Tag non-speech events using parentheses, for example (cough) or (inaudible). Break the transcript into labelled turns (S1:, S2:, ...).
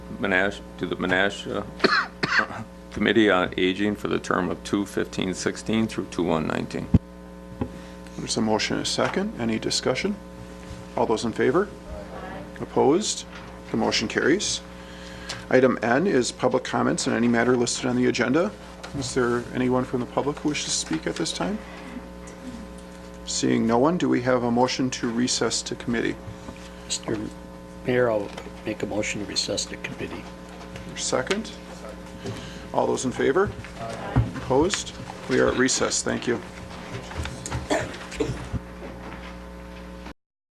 S1: Monash, to the Monash uh, (coughs) Committee on Aging for the term of 2/15/16 through 2/1/19.
S2: There's a motion and a second. Any discussion? All those in favor? Opposed? The motion carries. Item N is public comments on any matter listed on the agenda. Is there anyone from the public who wishes to speak at this time? Seeing no one, do we have a motion to recess to committee?
S3: Mr. Mayor, I'll make a motion to recess the committee.
S2: Second? All those in favor? Opposed? We are at recess. Thank you.